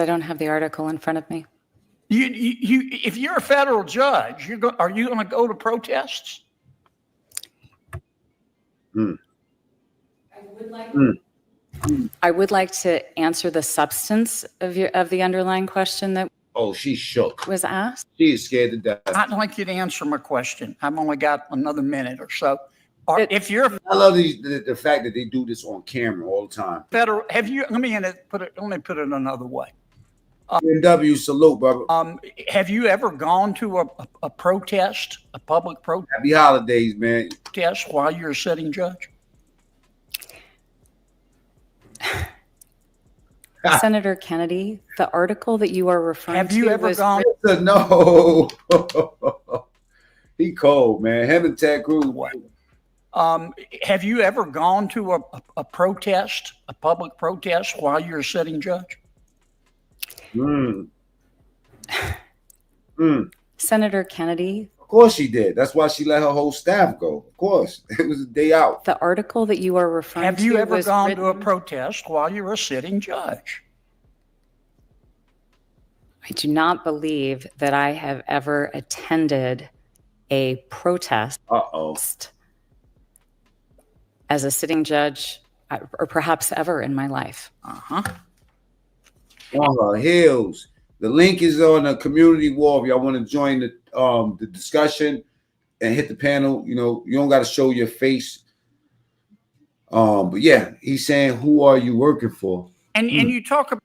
I don't have the article in front of me. You, you, you- if you're a federal judge, you're go, are you going to go to protests? I would like to answer the substance of your, of the underlying question that Oh, she's shook. was asked. She is scared to death. I I'd like you to answer my question. I've only got another minute or so. Or It- if you're a love these, the, the fact that they do this on camera all the time. federal, have you? Let me in it, put it. Let me put it another way. BMW salute, brother. Um, have you ever gone to a, a, a protest, a public Happy holidays, man. protest, while you're a sitting judge? Senator Kennedy, the article that you are referring Ah. Have you to ever was gone? no. he cold, man. Him and Ted Cruz. What? Um, have you ever gone to a, a, a protest, a public protest, while you're a sitting judge? Mm. Mm. Senator Kennedy, Of course she did. That's why she let her whole staff go. Of course. It was a day out. the article that you are referring Have to you ever was gone to a written- protest while you're a sitting judge? I do not believe that I have ever attended a protest Uh oh. past as a sitting judge uh, or perhaps ever in my life. Uh-huh. on her heels. The link is on the community wall. If y'all want to join the um the discussion and hit the panel, you know, you don't gotta show your face. Um, but yeah, he's saying, Who are you working for? And and you talk about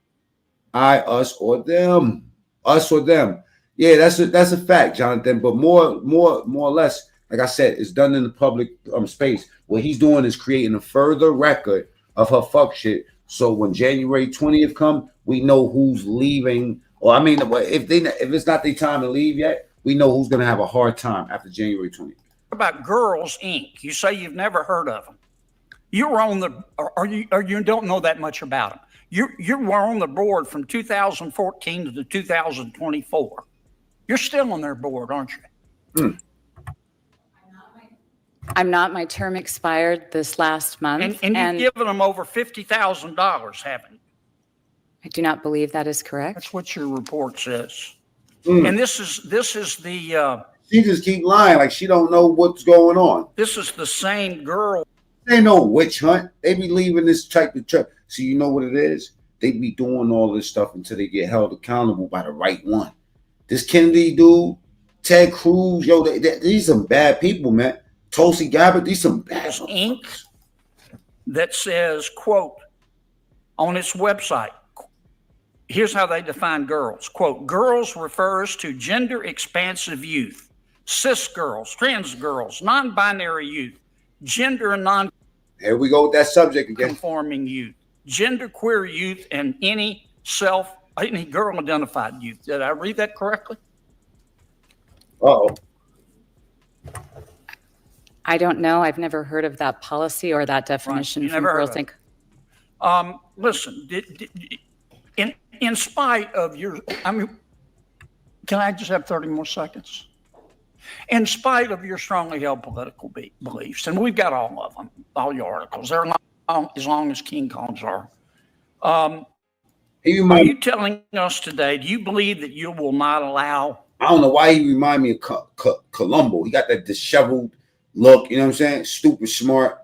I, us, or them. Us or them. Yeah, that's a that's a fact, Jonathan. But more, more, more or less, like I said, it's done in the public um space. What he's doing is creating a further record of her fuck shit. So when January 20th come, we know who's leaving. Or I mean, if they if it's not their time to leave yet, we know who's gonna have a hard time after January 20th. about Girls Inc. You say you've never heard of them. You were on the or, or you or you don't know that much about them. You you were on the board from 2014 to the 2024. You're still on their board, aren't you? I'm not, my term expired this last month. And and you've given them over fifty thousand dollars, haven't you? I do not believe that is correct. That's what your report says. Mm. And this is this is the uh, She just keep lying, like she don't know what's going on. this is the same girl They ain't no witch hunt. They be leaving this type of trip. So you know what it is? They be doing all this stuff until they get held accountable by the right one. This Kennedy dude, Ted Cruz, yo, they, they- these some bad people, man. Tulsi Gabbard, these some bad. has ink that says, quote, on its website, qu- here's how they define girls. Quote, girls refers to gender expansive youth, cis girls, trans girls, non binary youth, gender and non Here we go with that subject again. conforming youth, gender queer youth, and any self, any girl identified youth. Did I read that correctly? Uh oh. I don't know. I've never heard of that policy or that definition you from never heard Girls of it. Inc. Um, listen, did, did, in, in spite of your, I mean, can I just have 30 more seconds? In spite of your strongly held political be- beliefs, and we've got all of them, all your articles, they're long, as long as King Kong's are. Um, He are remind you telling us today, do you believe that you will not allow, I don't know why he remind me of Co- Co- Columbo. He got that disheveled look. You know what I'm saying? Stupid smart.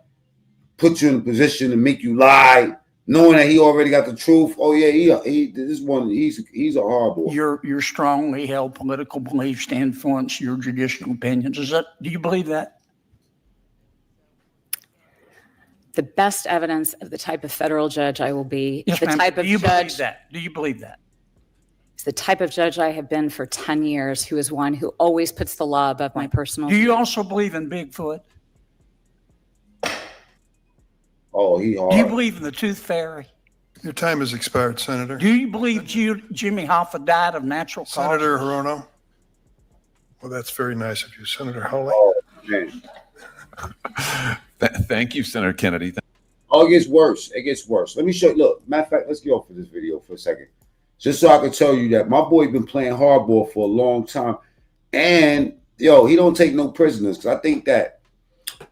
Put you in a position to make you lie, knowing that he already got the truth. Oh yeah, he, he this one. He's he's a horrible. your, your strongly held political beliefs to influence your judicial opinions? Is that, do you believe that? The best evidence of the type of federal judge I will be, Yes, the ma'am. type of Do you judge, believe that? Do you believe that? the type of judge I have been for 10 years, who is one who always puts the law above my personal. Do you also believe in Bigfoot? Oh, he hard. Do you believe in the tooth fairy? Your time has expired, Senator. Do you believe Ju- Jimmy Hoffa died of natural causes? Senator Hirono? Well, that's very nice of you, Senator Hawley. oh man. Th- Thank you, Senator Kennedy. Oh, it gets worse. It gets worse. Let me show. Look, matter of fact, let's get off of this video for a second, just so I can tell you that my boy been playing hardball for a long time, and yo, he don't take no prisoners. Cause I think that,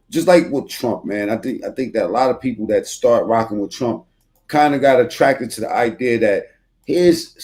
just like with Trump, man, I think I think that a lot of people that start rocking with Trump kind of got attracted to the idea that his